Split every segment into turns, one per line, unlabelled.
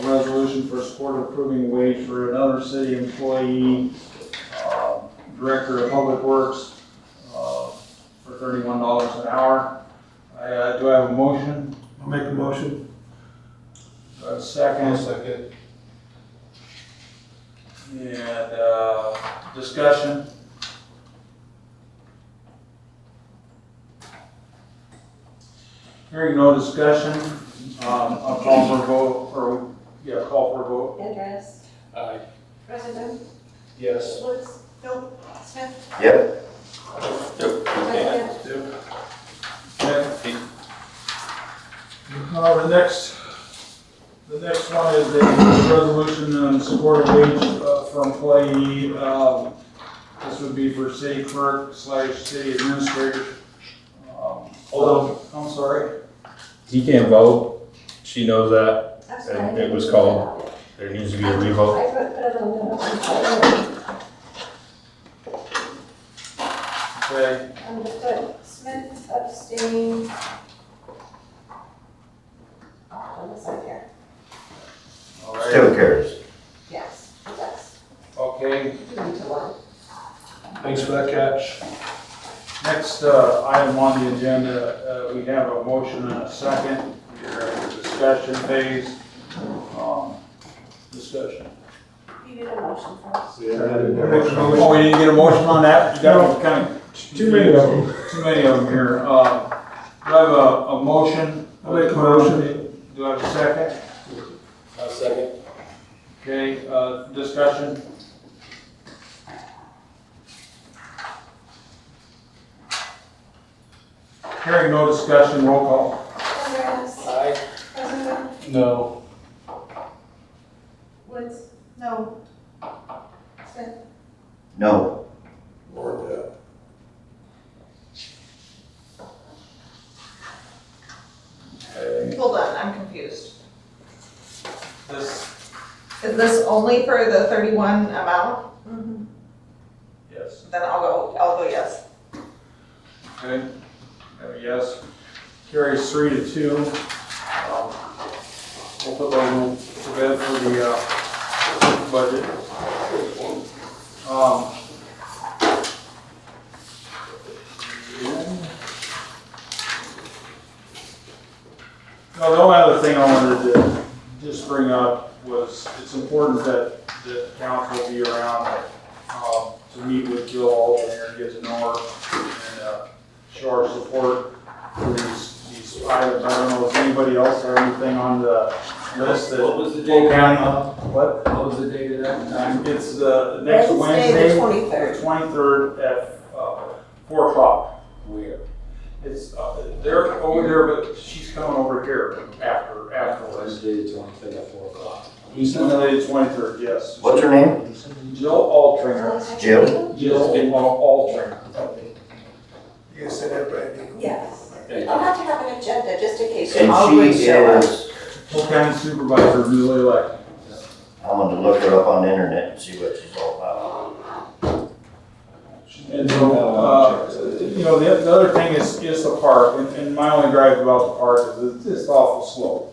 a resolution for support approving wage for another city employee, uh, Director of Public Works, uh, for thirty-one dollars an hour. I, uh, do I have a motion?
I'll make a motion.
Do I have a second?
second.
And, uh, discussion? Hearing no discussion, um, I'll call for a vote, or, yeah, call for a vote.
Andress,
Aye.
President
Yes.
Woods, Bill, Smith,
Yep.
President,
Okay.
Uh, the next,
The next one is the resolution on support of wage uh, for employee. um, This would be for city clerk slash city administrator. Um, Although, I'm sorry.
He can't vote. She knows that.
I'm sorry. I
And it
didn't
was
put
called-
that up.
There needs to be a revote.
I put that on the,
Okay,
on the foot, Smith abstained. On this one here,
all right,
Still carries.
yes, yes,
okay.
you need to one.
Thanks for that catch.
Next uh, item on the agenda, uh, we have a motion and a second. We're in the discussion phase. Um, Discussion.
You need a motion first.
Oh, we didn't get a motion on that? You got kind of
too many of them.
Too many of them here. Uh, Do I have a, a motion?
I'll make a motion.
Do I have a second?
I'll second.
Okay, uh, discussion? Hearing no discussion, roll call.
Andress,
Aye.
President
No.
Woods, no. Smith,
No.
Hold on, I'm confused.
This,
Is this only for the thirty-one amount?
yes.
Then I'll go, I'll go yes.
Okay, Uh, yes. Carries three to two. Um, We'll put those in to bed for the, uh, budget. Um, No, the only other thing I wanted to just bring up was, it's important that, that council be around, um, to meet with Jill Alden and get to know her, and, uh, show our support for these, these items. I don't know, if anybody else have anything on the list that?
What was the
Polk
date?
County, what?
What was the date of that time?
It's the next
the
Wednesday, the
twenty-third.
twenty-third at, uh, four o'clock.
Where?
It's, uh, they're over there, but she's coming over here after, afterwards.
Wednesday, the twenty-third at four o'clock.
Sunday the twenty-third, yes.
What's her name?
Jill Altringer.
Jill?
Jill Al- Altringer.
You said that, Brandon.
Yes.
Thank
I'll have to have an agenda just in case. you all
And
would
she
show up.
is,
Polk County Supervisor, newly elected.
I'm gonna look her up on the internet and see what she's all about.
And so, uh, you know, the, the other thing is, is the park, and, and my only gripe about the park is it's just awful slow.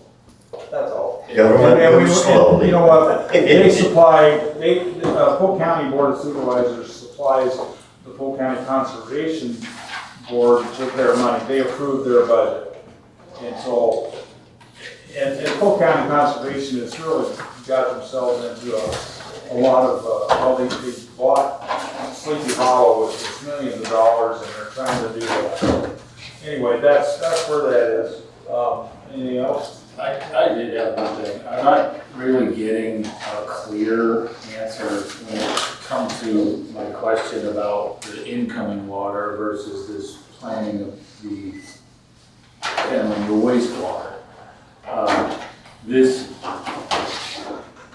That's all. And
Government
we-
moves
and You
slowly.
know what, they supply, they, uh, Polk County Board of Supervisors supplies the Polk County Conservation Board with their money, they approve their budget. And so, and, and Polk County Conservation has really got themselves into a, a lot of, uh, well, they, they bought Sleepy Hollow, which is millions of dollars, and they're trying to do that. Anyway, that's, that's where that is, um, anything else?
I, I did have one thing. I'm not really getting a clear answer when it comes to my question about the incoming water versus this planning of the handling the wastewater. Um, This,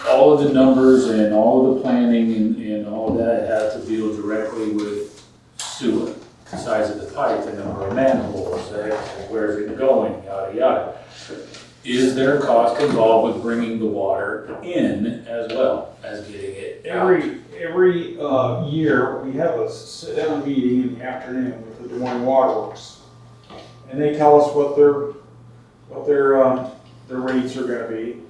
all of the numbers and all of the planning and, and all that has to deal directly with sewer. The size of the pipe, the number of manholes, uh, where's it going, yada, yada. Is there a cost involved with bringing the water in as well as getting it out?
Every, every uh, year, we have a sit-down meeting in the afternoon with the Des Moines Waterworks. And they tell us what their, what their, um, their rates are gonna be.